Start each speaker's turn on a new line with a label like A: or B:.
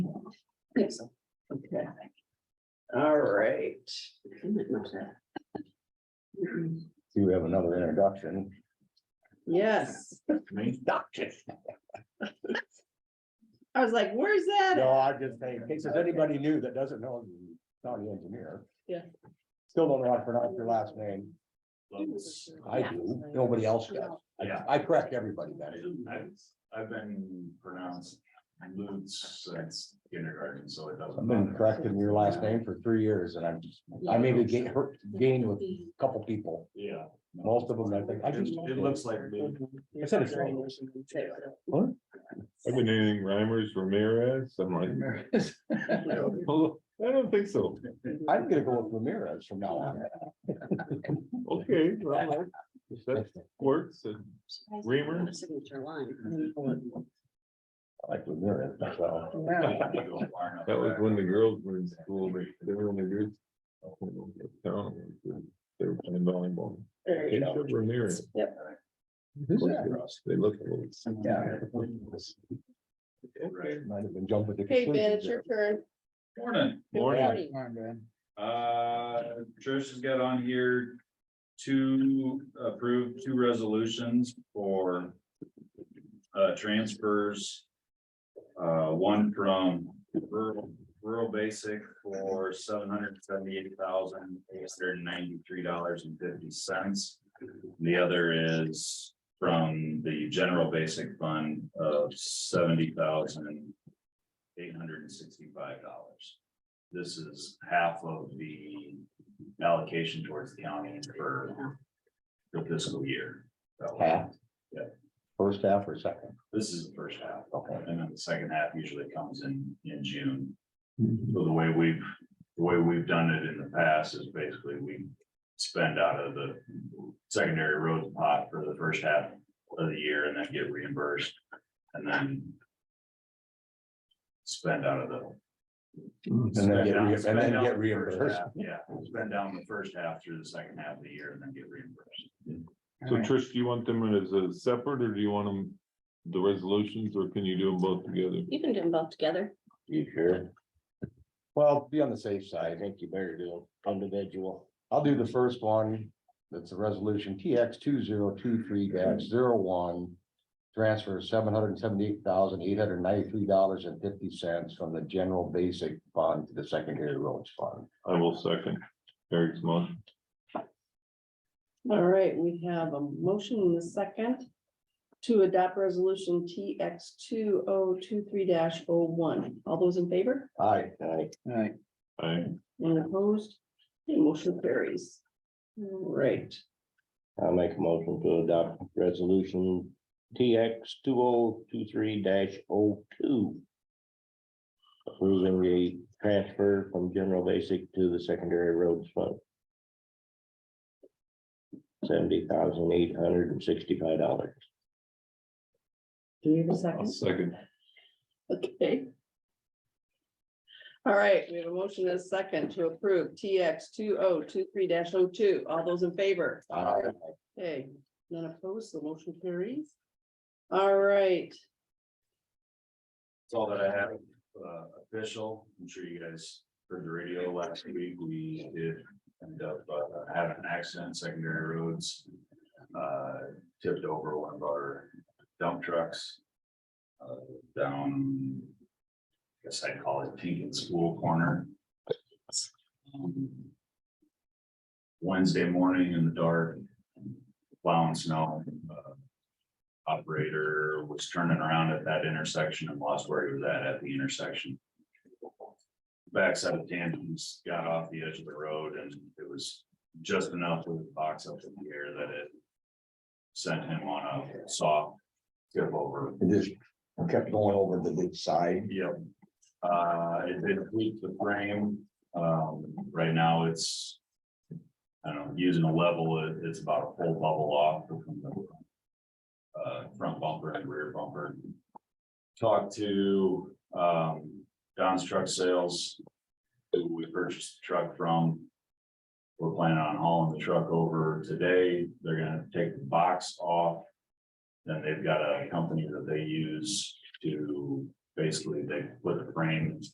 A: think so.
B: Okay. All right.
C: Do we have another introduction?
B: Yes,
C: Introduction.
B: I was like, where's that?
C: No, I just think, in case there's anybody new that doesn't know, you county engineer.
B: Yeah.
C: Still don't know how to pronounce your last name. I do, nobody else does.
D: Yeah.
C: I correct everybody, man.
D: I've, I've been pronounced Lutz since kindergarten, so it doesn't.
C: I've been
D: matter.
C: correcting your last name for three years and I'm, I maybe gain, hurt, gained with a couple people,
D: Yeah.
C: most of them, I think, I
D: It,
C: just.
D: it looks like Lutz.
C: I said it's-
E: I've been anything Reimers Ramirez, I'm like, "Oh, I don't think so,
C: I'm gonna go with Ramirez from now on.
E: okay. well, if That works, and Reamer?
A: Signature line.
C: I Like Ramirez, so.
E: that was when the girls were in school, but they were in the group. town, They were playing volleyball.
B: There you go.
E: Jacob Ramirez.
B: Yep.
E: They look. alike.
C: Yeah. Might have been jumping to.
B: Hey, Ben, it's
C: conclusions
B: your turn.
D: Morning,
E: Morning,
D: uh, Trish has got on here to approve two resolutions for. Uh, transfers. Uh, one from rural, rural basic for seven hundred seventy-eight thousand, eight hundred ninety-three dollars and fifty cents. The other is from the general basic fund of seventy thousand eight hundred and sixty-five dollars. This is half of the allocation towards the county for the fiscal year. So
C: Half?
D: Yeah.
C: First half or second?
D: This is the first half,
C: Okay.
D: and then the second half usually comes in, in June.
C: Mm-hmm.
D: So the way we've, the way we've done it in the past is basically we spend out of the secondary roads pot for the first half of the year and then get reimbursed, and then spend out of the
B: Mm.
C: And then get,
D: Spend down-
C: re- and
D: spend
C: then
D: down
C: get
D: the first
C: reimbursed.
D: half, Yeah, spend down the first half through the second half of the year and then get reimbursed.
E: so Trish, do you want them as a separate, or do you want them, the resolutions, or can you do them both together?
A: You can do them both together.
C: You sure? Well, be on the safe side. I think you better do individual. I'll do the first one. That's a resolution TX two zero two three dash zero one. Transfer seven hundred and seventy-eight thousand, eight hundred and ninety-three dollars and fifty cents from the general basic fund to the secondary roads fund.
E: I will second Eric's motion.
B: All right, we have a motion in the second to adopt resolution TX two oh two three dash oh one. All those in favor?
C: Aye.
E: I,
B: And opposed? The motion carries. All right.
F: I'll make a motion to adopt resolution TX two oh two three 2 Approving the transfer from general basic to the secondary roads fund. Seventy thousand eight hundred and sixty-five dollars.
B: Do we have a
E: I'll
B: second?
E: second.
B: Okay. All right, we have a motion and a second to approve TX two oh two three 2 All those in favor?
C: Aye.
B: Okay, none opposed, the motion carries. All right,
D: That's all that I have, uh, official, I'm sure you guys heard the radio last week, we did end up uh, having an accident, secondary roads. Uh, tipped over one of our dump trucks. Uh, down, I guess I'd call it Tinkin School Corner. Um, Wednesday morning in the dark, plowing snow, uh, operator was turning around at that intersection and lost where he was at at the intersection. Backside of Danton's got off the edge of the road and it was just enough with the box up in the air that it sent him on a soft tip over.
C: It just kept going over the big side.
D: Yep. Uh, it did tweak the frame. Um, right now it's, I don't know, using a level, it- it's about a full bubble off. from the, Uh, front bumper and rear bumper. Talked to, um, Don's Truck Sales, who we purchased the truck from. We're planning on hauling the truck over today. They're gonna take the box off. Then they've got a company that they use to basically they put a frame